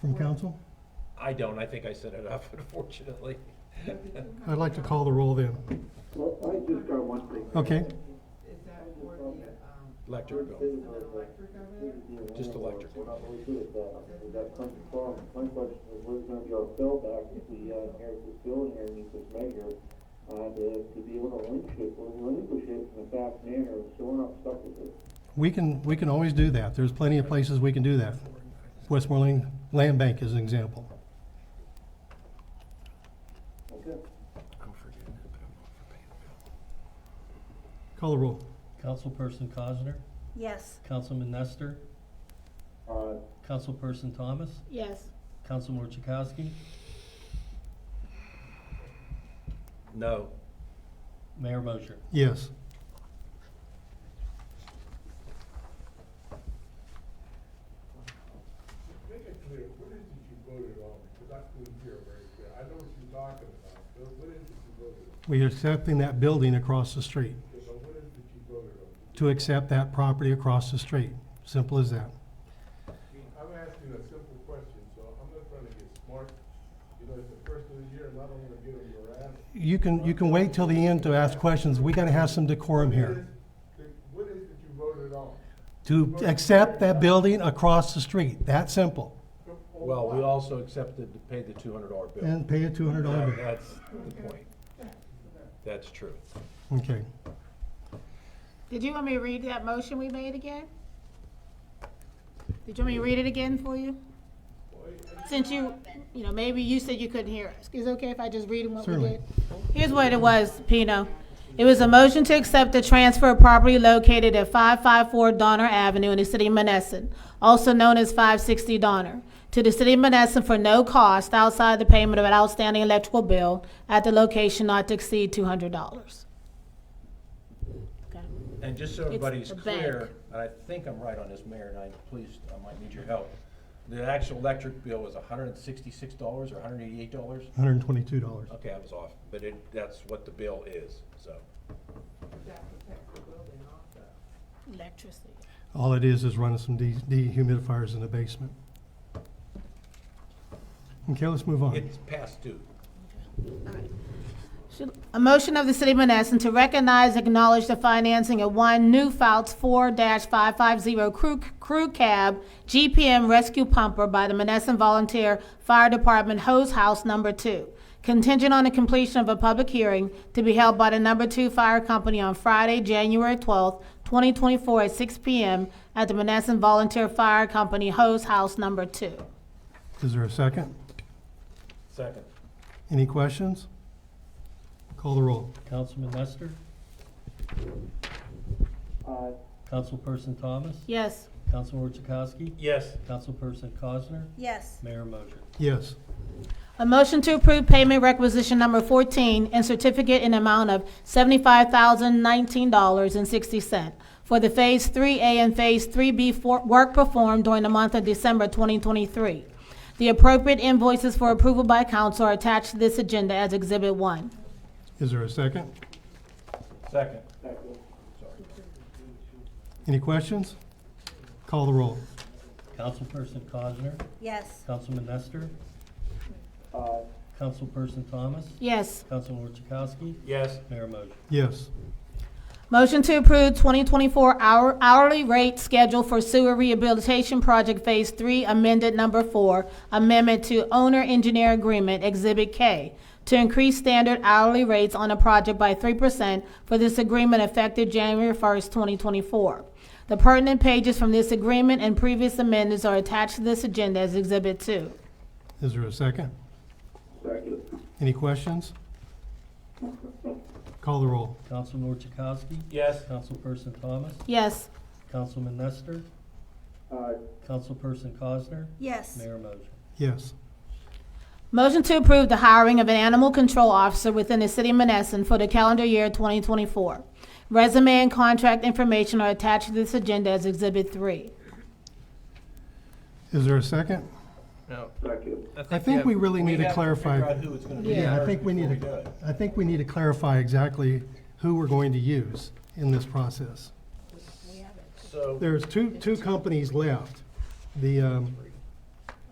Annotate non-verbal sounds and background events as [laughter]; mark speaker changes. Speaker 1: from council?
Speaker 2: I don't, I think I set it up [laughs] unfortunately.
Speaker 1: I'd like to call the roll then.
Speaker 3: Well, I just got one thing.
Speaker 1: Okay,
Speaker 4: Is that for the, um,
Speaker 2: Electric bill,
Speaker 4: is it electric over there?
Speaker 2: just electric.
Speaker 3: We're not really good at that. Is uh, that comes from, my question is, where's gonna be our fallback if we uh, inherit this building here and meet this measure? Uh, to, to be able to relinquish it, or relinquish it in a fast manner, so we're not stuck with it.
Speaker 1: we can, we can always do that. There's plenty of places we can do that. Westmoreland Land Bank is an example.
Speaker 3: Okay.
Speaker 1: Call the roll.
Speaker 5: Councilperson Cosner,
Speaker 6: Yes.
Speaker 5: Councilman Nestor,
Speaker 3: Uh,
Speaker 5: Councilperson Thomas,
Speaker 6: Yes.
Speaker 5: Councilman Chakowski,
Speaker 2: No,
Speaker 5: Mayor Mosher.
Speaker 1: Yes.
Speaker 7: Make it clear, what is it you voted on? Because I couldn't hear very clear. I know what you're talking about, but what is it you voted on?
Speaker 1: We are accepting that building across the street,
Speaker 7: Yeah, But what is it you voted on?
Speaker 1: to accept that property across the street. Simple as that.
Speaker 7: I'm asking a simple question, so I'm not trying to get smart. You know, it's the first of the year and I don't wanna get on your ass.
Speaker 1: You can, you can wait till the end to ask questions. We gotta have some decorum here.
Speaker 7: What is- What is it you voted on?
Speaker 1: To accept that building across the street, that simple.
Speaker 7: On
Speaker 2: well, we
Speaker 7: what?
Speaker 2: also accepted to pay the two hundred dollar bill.
Speaker 1: And pay a two hundred dollar
Speaker 2: That-
Speaker 1: bill.
Speaker 2: That's the point. That's true.
Speaker 1: Okay.
Speaker 6: Did you want me to read that motion we made again? Did you want me to read it again for you? Since you, you know, maybe you said you couldn't hear us. Is it okay if I just read them what we
Speaker 1: Certainly.
Speaker 6: did? Here's what it was, Pino. It was a motion to accept the transfer of property located at 554 Donner Avenue in the city of Menneson, also known as 560 Donner, to the city of Menneson for no cost outside the payment of an outstanding electrical bill at the location not to exceed $200. Okay.
Speaker 2: And just so everybody's
Speaker 6: the bank.
Speaker 2: clear, and I think I'm right on this, Mayor, and I, please, I might need your help. The actual electric bill was hundred and sixty-six dollars or hundred and eighty-eight dollars?
Speaker 1: Hundred and twenty-two dollars.
Speaker 2: Okay, I was off, but it, that's what the bill is, so.
Speaker 4: That protects the building also.
Speaker 6: Electricity.
Speaker 1: All it is is running some de- dehumidifiers in the basement. Okay, let's move on.
Speaker 2: It's past due.
Speaker 6: Should- A motion of the City of Menneson to recognize, acknowledge the financing of one New Fouts four five five zero crew, crew cab GPM rescue pumper by the Menneson Volunteer Fire Department Hose House Number Two, contingent on the completion of a public hearing to be held by the Number Two Fire Company on Friday, January twelfth, twenty twenty-four at six P M at the Menneson Volunteer Fire Company Hose House Number Two.
Speaker 1: Is there a second?
Speaker 2: Second.
Speaker 1: Any questions? Call the roll.
Speaker 5: Councilman Nestor,
Speaker 3: uh,
Speaker 5: Councilperson Thomas,
Speaker 6: Yes.
Speaker 5: Councilman Chakowski,
Speaker 2: Yes.
Speaker 5: Councilperson Cosner,
Speaker 6: Yes.
Speaker 5: Mayor Mosher.
Speaker 1: Yes.
Speaker 6: A motion to approve payment requisition number 14 and certificate in amount of $75,019.60 for the Phase 3A and Phase 3B for- work performed during the month of December 2023. The appropriate invoices for approval by council are attached to this agenda as Exhibit 1.
Speaker 1: Is there a second?
Speaker 2: Second.
Speaker 3: second.
Speaker 1: Any questions? Call the roll.
Speaker 5: Councilperson Cosner,
Speaker 6: Yes.
Speaker 5: Councilman Nestor,
Speaker 3: Uh,
Speaker 5: Councilperson Thomas,
Speaker 6: Yes.
Speaker 5: Councilman Chakowski,
Speaker 2: Yes.
Speaker 5: Mayor Mosher.
Speaker 1: Yes.
Speaker 6: Motion to approve 2024 hour- hourly rate schedule for sewer rehabilitation project Phase 3 amended number 4, amendment to owner engineer agreement Exhibit K, to increase standard hourly rates on a project by 3% for this agreement effective January 1st, 2024. The pertinent pages from this agreement and previous amendments are attached to this agenda as Exhibit 2.
Speaker 1: Is there a second?
Speaker 3: second.
Speaker 1: Any questions? Call the roll.
Speaker 5: Councilman Chakowski,
Speaker 2: Yes.
Speaker 5: Councilperson Thomas,
Speaker 6: Yes.
Speaker 5: Councilman Nestor,
Speaker 3: Uh,
Speaker 5: Councilperson Cosner,
Speaker 6: Yes.
Speaker 5: Mayor Mosher.
Speaker 1: Yes.
Speaker 6: Motion to approve the hiring of an animal control officer within the city of Menneson for the calendar year 2024. Resume and contract information are attached to this agenda as Exhibit 3.
Speaker 1: Is there a second?
Speaker 2: No.
Speaker 3: second.
Speaker 1: I think we really need to clarify.
Speaker 2: who it's gonna be
Speaker 1: Yeah, I
Speaker 2: first
Speaker 1: think we
Speaker 2: before
Speaker 1: need
Speaker 2: do it.
Speaker 1: to, I think we need to clarify exactly who we're going to use in this process.
Speaker 2: So,
Speaker 1: There's two, two companies left. The, um,